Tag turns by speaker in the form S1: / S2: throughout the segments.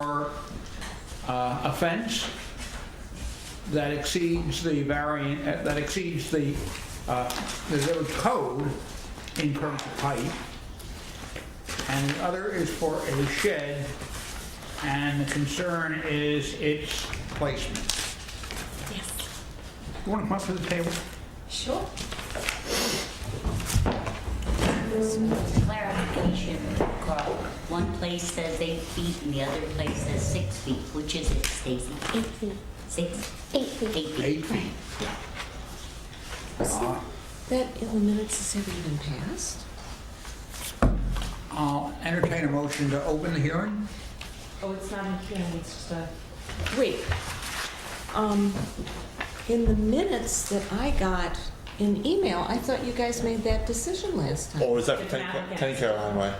S1: or uh, offense that exceeds the variant, uh, that exceeds the, uh, the village code in terms of height. And the other is for a shed, and the concern is its placement.
S2: Yes.
S1: You want to come up to the table?
S2: Sure. Clarification, Carl. One place says eight feet and the other place says six feet. Which is it, Stacy?
S3: Eight feet.
S2: Six?
S3: Eight feet.
S2: Eight feet.
S1: Eight feet. Uh,
S4: Wasn't that in the minutes this ever even passed?
S1: I'll entertain a motion to open the hearing.
S5: Oh, it's not a hearing, it's just a,
S4: Wait, um, in the minutes that I got in email, I thought you guys made that decision last time.
S6: Or is that for
S5: It's
S6: 10
S5: not
S6: Ca-
S5: against
S6: 10 Caroline Way?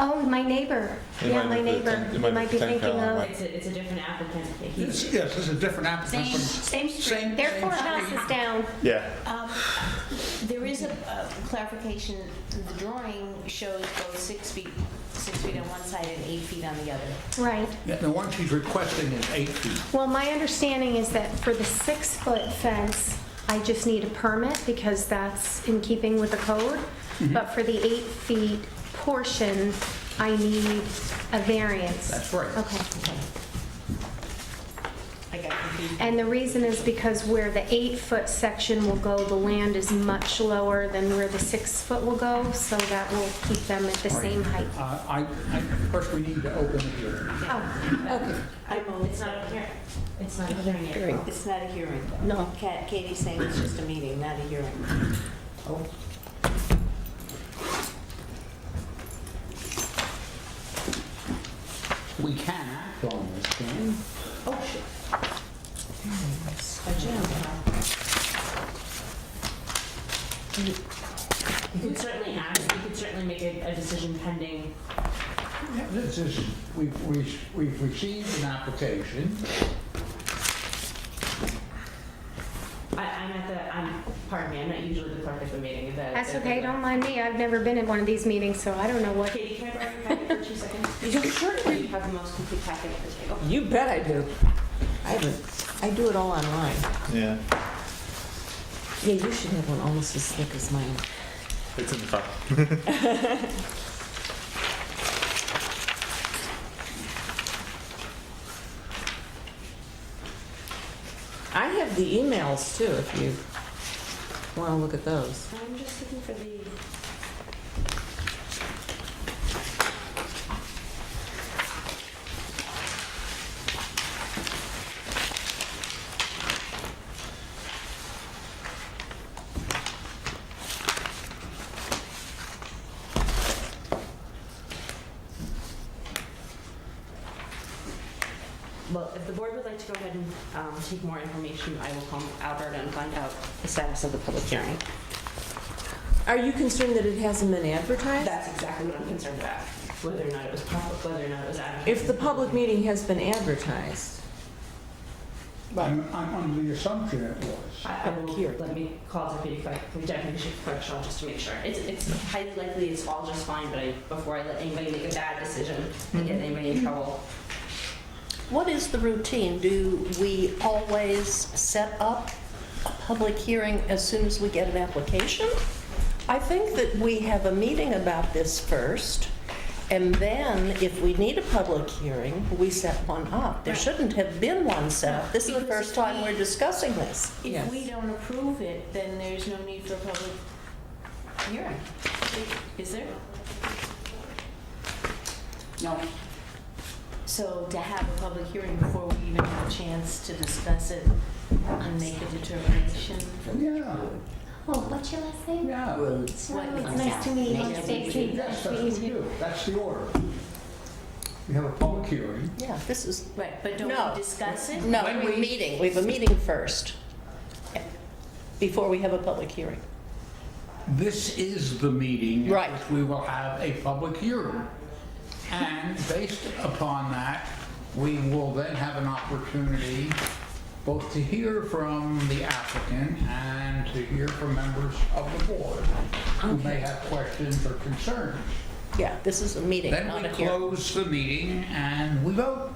S3: Oh, my neighbor.
S6: It
S3: Yeah,
S6: might
S3: my
S6: be the
S3: neighbor.
S6: ten- it might be
S3: Might be
S6: the ten
S3: thinking
S6: count,
S3: of,
S6: right?
S5: it's a, it's a different applicant. He-
S1: Yes, yes, this is a different applicant.
S2: Same,
S1: from-
S2: same street.
S1: Same-
S3: they're four houses down.
S6: Yeah.
S7: Um, There is a a clarification, the drawing shows both six feet, six feet on one side and eight feet on the other.
S3: Right.
S1: Yeah, The one she's requesting is eight feet.
S3: Well, my understanding is that for the six-foot fence, I just need a permit because that's in keeping with the code.
S1: Mm-hmm.
S3: But for the eight-feet portion, I need a variance.
S1: That's right.
S3: Okay.
S7: I got confused.
S3: And the reason is because where the eight-foot section will go, the land is much lower than where the six-foot will go, so that will keep them at the same height.
S1: Uh, I, I, first we need to open the hearing.
S3: Oh,
S5: I move. It's not a hearing. It's not a hearing yet.
S7: It's not a hearing, though. No. Katie's saying it's just a meeting, not a hearing.
S1: Oh. We can act on this, can we? Oh,
S5: You could certainly ask, you could certainly make a, a decision pending.
S1: Yeah, This is, we've, we've we've received an application.
S5: I, I'm at the, I'm, pardon me, I'm not usually the clerk at the meeting. the-
S3: that's
S5: the-
S3: okay, don't mind me, I've never been in one of these meetings, so I don't know what.
S5: Katie, can I borrow your packet for two seconds? You certainly. You have the most complete packet at the table.
S4: You bet I do. I haven't, I do it all online.
S6: Yeah.
S4: Yeah, you should have one almost as slick as mine.
S6: It's in the front.
S4: I have the emails too, if you want to look at those.
S5: I'm just looking for the. Well, if the board would like to go ahead and um, take more information, I will call Albert and find out the status of the public hearing.
S4: Are you concerned that it hasn't been advertised?
S5: That's exactly what I'm concerned about, whether or not it was public, whether or not it was advertised.
S4: If the public meeting has been advertised,
S1: I'm, I'm under the assumption it was.
S5: I I will,
S4: Here.
S5: let me call deputy clerk, deputy chief clerk Shaw, just to make sure. It's, it's highly likely it's all just fine, but I, before I let anybody make a bad decision and get anybody in trouble.
S8: What is the routine? Do we always set up a public hearing as soon as we get an application? I think that we have a meeting about this first, and then if we need a public hearing, we set one up. There shouldn't have been one set up. This is the first time we're discussing this.
S7: If we don't approve it, then there's no need for a public hearing. Is there?
S2: No.
S7: So to have a public hearing before we even have a chance to discuss it and make a determination.
S1: Yeah,
S3: Oh, what's your last name?
S1: yeah.
S2: Roads.
S7: What
S3: Oh,
S7: is
S3: it's nice to meet you. Nice to meet you.
S1: Yes, that's what we do. That's the order. We have a public hearing.
S8: Yeah, this is,
S7: Right, but don't
S8: No.
S7: we discuss it?
S8: no,
S1: When
S8: we're
S1: we-
S8: meeting, we have a meeting first, before we have a public hearing.
S1: This is the meeting. at
S8: Right.
S1: which We will have a public hearing. And based upon that, we will then have an opportunity both to hear from the applicant and to hear from members of the board who may have questions or concerns.
S8: Yeah, this is a meeting,
S1: Then
S8: not
S1: we
S8: a hearing.
S1: close the meeting and we vote.